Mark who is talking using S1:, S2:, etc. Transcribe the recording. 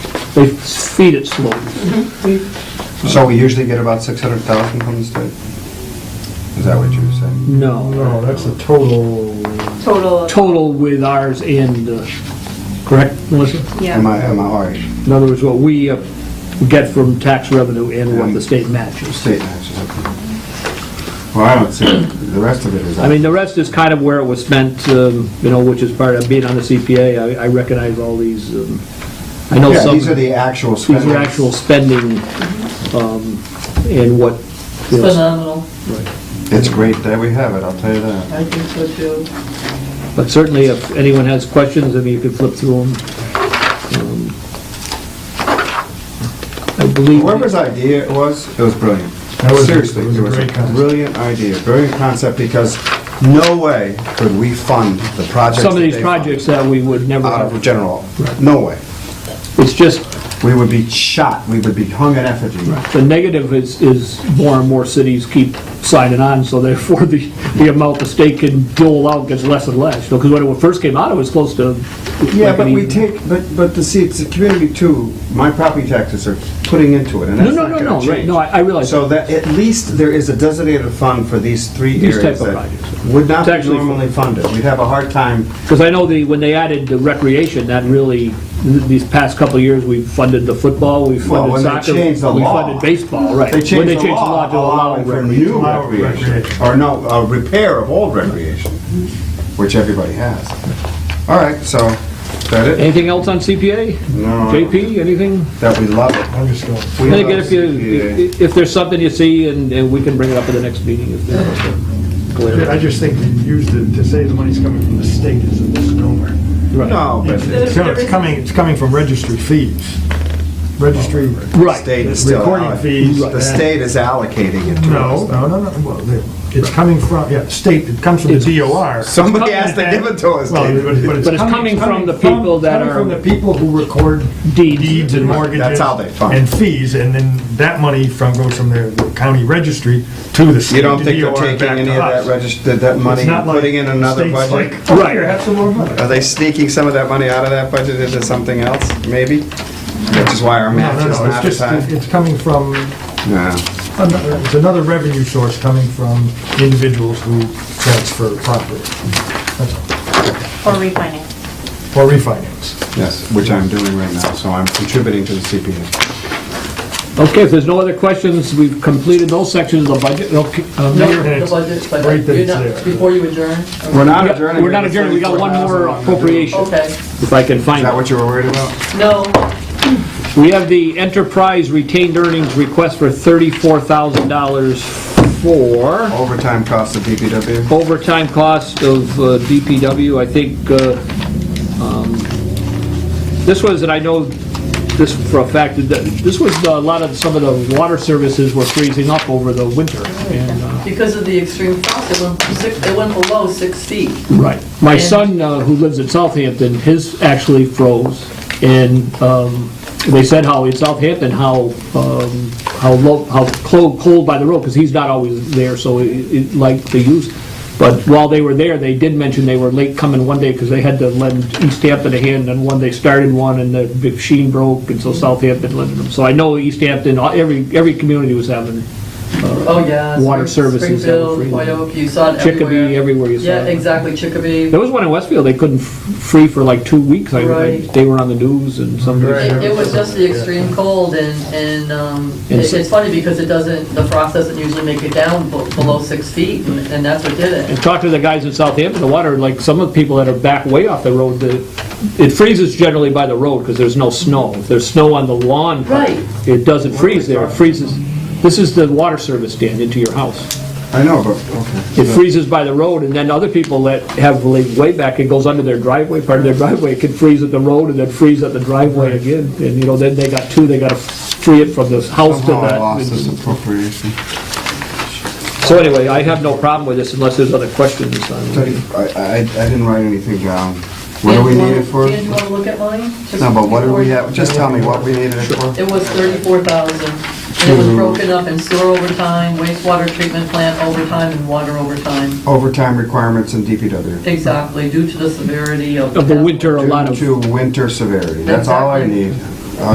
S1: they feed it slowly.
S2: So we usually get about 600,000 from the state? Is that what you were saying?
S1: No,
S3: No, Oh, that's a total,
S4: Total,
S1: total with ours and, uh, correct, Melissa?
S2: Am
S4: yeah.
S2: I, am I all right?
S1: In other words, what we uh, get from tax revenue and what the state matches.
S2: State matches, okay. Well, I don't see, it. the rest of it is.
S1: I mean, the rest is kind of where it was spent, um, you know, which is part of being on the CPA. I I recognize all these, um, I know
S2: Yeah,
S1: some...
S2: these are the actual
S1: These
S2: spendings.
S1: are actual spending um, and what, you know,
S4: Phenomenal.
S2: It's great that we have it, I'll tell you that.
S4: I think so too.
S1: But certainly, if anyone has questions, I mean, you can flip through them. Um, I believe,
S2: Whoever's idea it was, it was brilliant.
S3: That was-
S2: Seriously,
S3: it was
S2: it
S3: a
S2: was a
S3: great concept.
S2: brilliant idea, brilliant concept, because no way could we fund the projects.
S1: some of
S2: that
S1: these
S2: they fund
S1: projects that we would never,
S2: Out of
S1: have.
S2: general, no way.
S1: it's just,
S2: We would be shot, we would be hung in effigy.
S1: the negative is, is more and more cities keep signing on, so therefore the, the amount the state can dole out gets less and less. Because when it first came out, it was close to.
S2: Yeah,
S1: like
S2: but
S1: an
S2: we
S1: even-
S2: take, but, but the, see, it's the community too, my property taxes are putting into it, and
S1: No,
S2: that's
S1: no,
S2: not
S1: no,
S2: gonna
S1: no, right,
S2: change.
S1: no, I I realize.
S2: So that, at least there is a designated fund for these three
S1: These type
S2: areas
S1: of
S2: that
S1: projects.
S2: would not
S1: It's
S2: be
S1: actually-
S2: normally funded. We'd have a hard time,
S1: Because I know the, when they added the recreation, that really, th- these past couple of years, we've funded the football, we've
S2: Well,
S1: funded
S2: when they
S1: soccer.
S2: changed the law,
S1: We funded baseball, right.
S2: they
S1: When
S2: changed
S1: they
S2: the law
S1: to
S2: allowing for
S1: recreation.
S2: new
S3: Allow
S2: recreation,
S3: recreation.
S2: or no, a repair of old recreation, which everybody has. All right, so, is that it?
S1: Anything else on CPA?
S2: No.
S1: JP, anything?
S2: That we love it.
S3: I'm just going,
S2: We
S1: And
S2: love
S1: again, if you,
S2: CPA.
S1: if- if there's something you see, and, and we can bring it up at the next meeting if there's something
S3: I
S1: clear.
S3: just think to use the, to say the money's coming from the state is a misnomer.
S1: Right.
S2: No, but the
S3: It's it's coming, it's coming from registry fees, registry,
S1: Right.
S2: state is still.
S3: Recording
S2: alloc-
S3: fees.
S2: The state is allocating it to us.
S3: no, no, no, no, well, they- it's coming from, yeah, state, it comes from the DOR.
S2: Somebody has to give it to us,
S3: Well,
S2: David.
S1: But it's coming from the people that
S3: coming
S1: are-
S3: from the people who record
S1: Deeds.
S3: deeds and
S2: Right,
S3: mortgages.
S2: that's how they fund.
S3: And fees, and then that money from, goes from their county registry to the state.
S2: You don't think they're
S3: DOR,
S2: taking
S3: back
S2: any of
S3: to
S2: that
S3: us.
S2: registered, that
S3: It's
S2: money,
S3: not
S2: and
S3: like
S2: putting in another
S3: state's
S2: budget?
S3: like, "Oh, here, have some more money."
S2: Are they sneaking some of that money out of that budget into something else, maybe? Which is why our
S3: No,
S2: match
S3: no,
S2: is
S3: no,
S2: not as
S3: it's just,
S2: high.
S3: it's coming from,
S2: Yeah.
S3: another- it's another revenue source coming from individuals who transfer property. That's all.
S4: Or refinance.
S3: Or refinance.
S2: Yes, which I'm doing right now, so I'm contributing to the CPA.
S1: Okay, if there's no other questions, we've completed those sections of the budget. Okay, uh,
S5: No,
S1: Mayor?
S5: the budget, but
S3: Right that
S5: you're
S3: it's
S5: not,
S3: there.
S5: before you adjourn?
S4: Oh.
S2: We're not adjourning.
S1: We're not adjourned, we got one more appropriation,
S5: Okay,
S1: if I can
S2: Is
S1: find
S2: that
S1: it.
S2: what you were worried about?
S5: no,
S1: We have the enterprise retained earnings request for $34,000 for
S2: Overtime costs of DPW?
S1: overtime cost of uh, DPW. I think, uh, um, this was, and I know this for a fact, that this was uh, a lot of, some of the water services were freezing up over the winter. and, uh,
S5: because of the extreme frost, it went from six, it went below six feet.
S1: Right. My
S5: And-
S1: son, uh, who lives in Southampton, his actually froze, and um, they said how in Southampton, how, um, how low, how cold, cold by the road, because he's not always there, so it- it, like, they use, but while they were there, they did mention they were late coming one day, because they had to lend East Hampton a hand, and one, they started one, and the machine broke, and so Southampton lent them. So I know East Hampton, uh, every, every community was having,
S5: Oh, yeah.
S1: Water
S5: Spring-
S1: services have a free
S5: Springfield,
S1: one.
S5: Wyoke, you saw it everywhere.
S1: Chicopee, everywhere you saw
S5: Yeah,
S1: it.
S5: exactly, Chicopee.
S1: there was one in Westfield, they couldn't f- free for like two weeks, I- I,
S5: Right.
S1: they were on the news, and some.
S5: It it was just the extreme cold and, and, um, it- it's funny because it doesn't, the frost doesn't usually make it down be- below six feet and and that's what did it.
S1: and talk to the guys in Southampton, the water, like some of the people that are back way off the road, the- it freezes generally by the road because there's no snow. If there's snow on the lawn,
S5: Right.
S1: it doesn't freeze there, it freezes. This is the water service, Dan, into your house.
S2: I know, but, okay.
S1: It freezes by the road, and then other people that have laid way back, it goes under their driveway, part of their driveway, it can freeze at the road and then freeze at the driveway again. And, you know, then they got two, they gotta free it from the house to
S2: Somehow I lost this
S1: that.
S2: appropriation.
S1: So anyway, I have no problem with this unless there's other questions on it.
S2: Teddy, I, I, I didn't write anything down. What do we need it for?
S5: Dan, do you wanna look at mine? Just
S2: No, but what do we
S5: before-
S2: have, just tell me what we needed it for.
S5: It was thirty-four thousand, and it was
S2: Hmm.
S5: broken up in sewer overtime, wastewater treatment plant overtime, and water overtime.
S2: Overtime requirements in DPW.
S5: Exactly, due to the severity of.
S1: Of the winter, a lot of.
S2: Due to winter severity, that's all I
S5: Exactly.
S2: need.